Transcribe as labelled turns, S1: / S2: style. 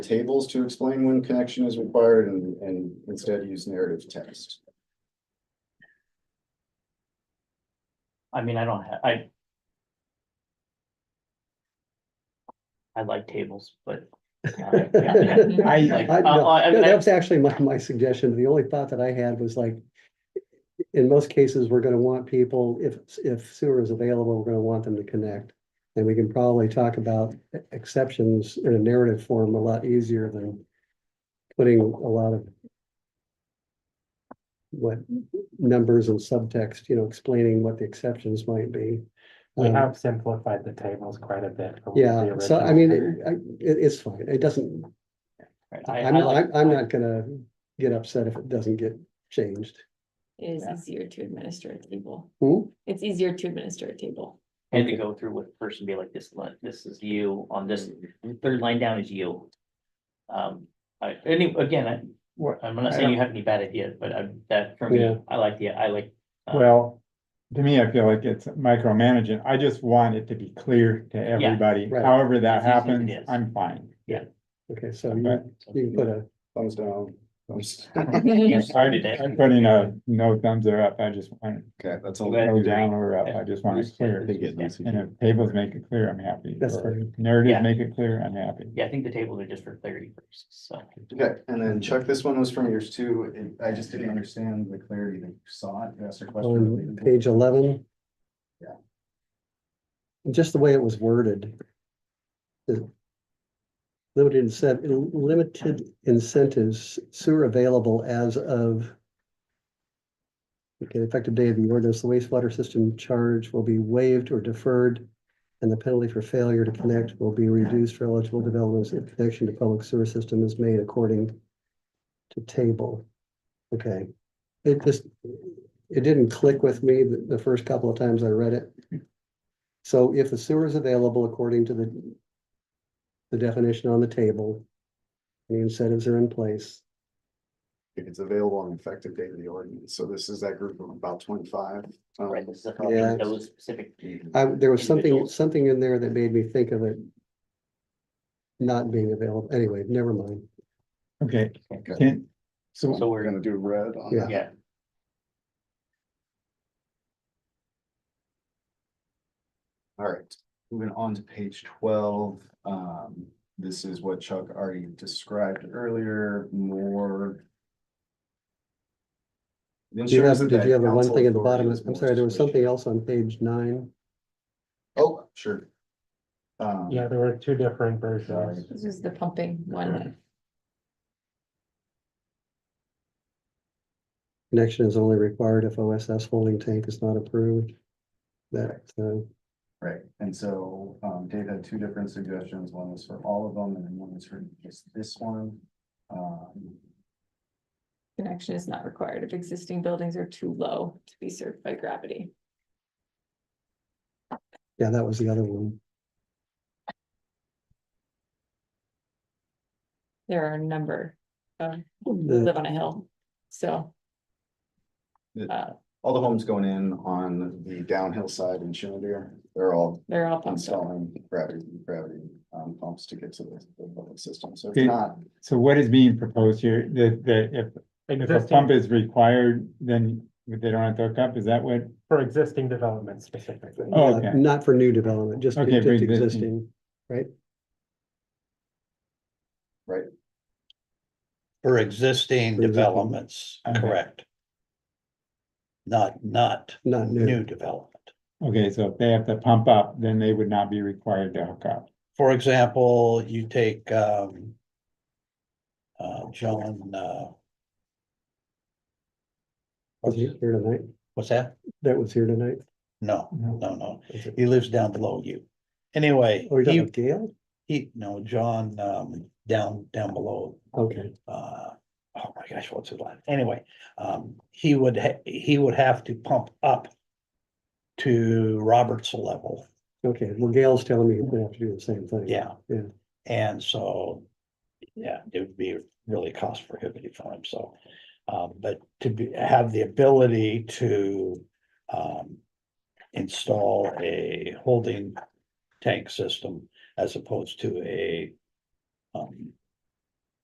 S1: tables to explain when connection is required and, and instead use narrative text.
S2: I mean, I don't have, I. I like tables, but. uh, yeah, yeah.
S3: I,
S2: Like,
S3: I,
S2: uh,
S3: no,
S2: uh,
S3: no,
S2: I-
S3: that was actually my, my suggestion. The only thought that I had was like, in most cases, we're gonna want people, if, if sewer is available, we're gonna want them to connect. And we can probably talk about e-, exceptions in a narrative form a lot easier than putting a lot of what numbers and subtext, you know, explaining what the exceptions might be.
S4: We
S3: Um,
S4: have simplified the tables quite a bit. from the
S3: Yeah, so I
S4: original.
S3: mean, it, I- it, it's fine. It doesn't,
S2: right, I- I
S3: I'm, not-
S2: like-
S3: I'm, I'm not gonna get upset if it doesn't get changed.
S5: It is
S2: Yeah.
S5: easier to administer a table.
S3: Hmm?
S5: It's easier to administer a table.
S2: I Had to go through with first and be like this, line- this is you on this, third line down is you. Um, I, any, again, I, we're- I'm not saying you have any bad ideas, but I, that for me,
S3: Yeah.
S2: I like the, I like. uh,
S6: Well, to me, I feel like it's micromanaging. I just want it to be clear to everybody.
S3: right.
S6: However
S2: As easy as
S6: that
S2: it
S6: happens,
S2: is.
S6: I'm fine.
S3: Okay, so
S6: Okay.
S3: you, you can put a,
S1: Thumbs down, thumbs,
S6: I-
S2: Yeah, started it.
S6: I'm putting a no thumbs are up. I just want
S1: okay, that's all.
S2: Let-
S6: no down or up. I just want it
S1: I
S6: clear.
S1: think it needs to be-
S6: And if tables make it clear, I'm happy.
S3: That's
S6: Or
S3: fine.
S2: Yeah.
S6: Narrative make it clear, I'm happy.
S2: Yeah, I think the tables are just for clarity purposes, so.
S1: Okay, and then Chuck, this one was from yours too. and I just didn't understand the clarity that you saw it. You asked a question.
S3: on
S1: related to-
S3: Um, page eleven.
S1: Yeah.
S3: Just the way it was worded. The Limited incentive, limited incentives sewer available as of. Okay, effective day of the ordinance, the wastewater system charge will be waived or deferred. And the penalty for failure to connect will be reduced for eligible developments if connection to public sewer system is made according. To table. Okay. It just, it didn't click with me the, the first couple of times I read it. So if the sewer is available according to the the definition on the table, the incentives are in place.
S1: If it's available on effective date of the ordinance, so this is that group of about twenty-five. um,
S2: Right, this is a-
S3: Oh, Yeah.
S2: those specific,
S3: I, there was something,
S2: Individuals.
S3: something in there that made me think of it not being available. Anyway, never mind.
S6: Okay,
S1: Okay.
S6: can,
S2: so
S6: so
S1: We're
S2: we're,
S1: gonna do red on.
S3: Yeah.
S2: yeah,
S1: All right, moving on to page twelve, um, this is what Chuck already described earlier, more.
S3: Do you have, did you have a one thing at the bottom? I'm sorry, there was something else on page nine.
S1: Oh, sure. Um,
S4: Yeah, there were two different versions.
S5: This is the pumping one.
S3: Connection is only required if OSS holding tank is not approved. That, uh,
S1: right, and so, um, Dave had two different suggestions, one was for all of them, and then one was for just this one. Um,
S5: Connection is not required if existing buildings are too low to be served by gravity.
S3: yeah, that was the other one.
S5: There are a number of who
S3: The-
S5: live on a hill, so.
S1: The-
S5: uh,
S1: all the homes going in on the downhill side in Shenandoah, they're all
S5: They're all pumped up.
S1: installing gravity, gravity um, pumps to get to the, the public system, so it's
S6: Okay.
S1: not.
S6: so what is being proposed here? That, that if, if a
S4: Existing,
S6: pump is required, then they don't have to hook up? Is that what?
S4: for existing developments specifically.
S6: Oh,
S3: Uh,
S6: okay.
S3: Not for new development, just
S6: Okay,
S3: just
S6: for existing.
S3: existing, right?
S1: Right.
S7: For existing
S3: For existing.
S7: developments,
S6: Okay.
S7: correct. Not, not
S3: Not new.
S7: new development.
S6: Okay, so if they have to pump up, then they would not be required to hook up.
S7: For example, you take, um. Uh, John, uh,
S3: Was he here tonight?
S7: what's that?
S3: That was here tonight?
S7: No,
S6: No.
S7: no, no.
S3: Was it-
S7: He lives down below you. Anyway,
S3: Oh, you're talking
S7: he,
S3: about Gail?
S7: he, no, John, um, down, down below
S3: Okay,
S7: uh, oh my gosh, what's his last? Anyway, um, he would, ha- he would have to pump up to Robert's level,
S3: okay. Well, Gail's telling me he's gonna have to do the same thing.
S7: yeah.
S3: Yeah.
S7: And so, yeah, it would be really cost prohibitive for him, so. Um, but to be, have the ability to, um, install a holding tank system as opposed to a um,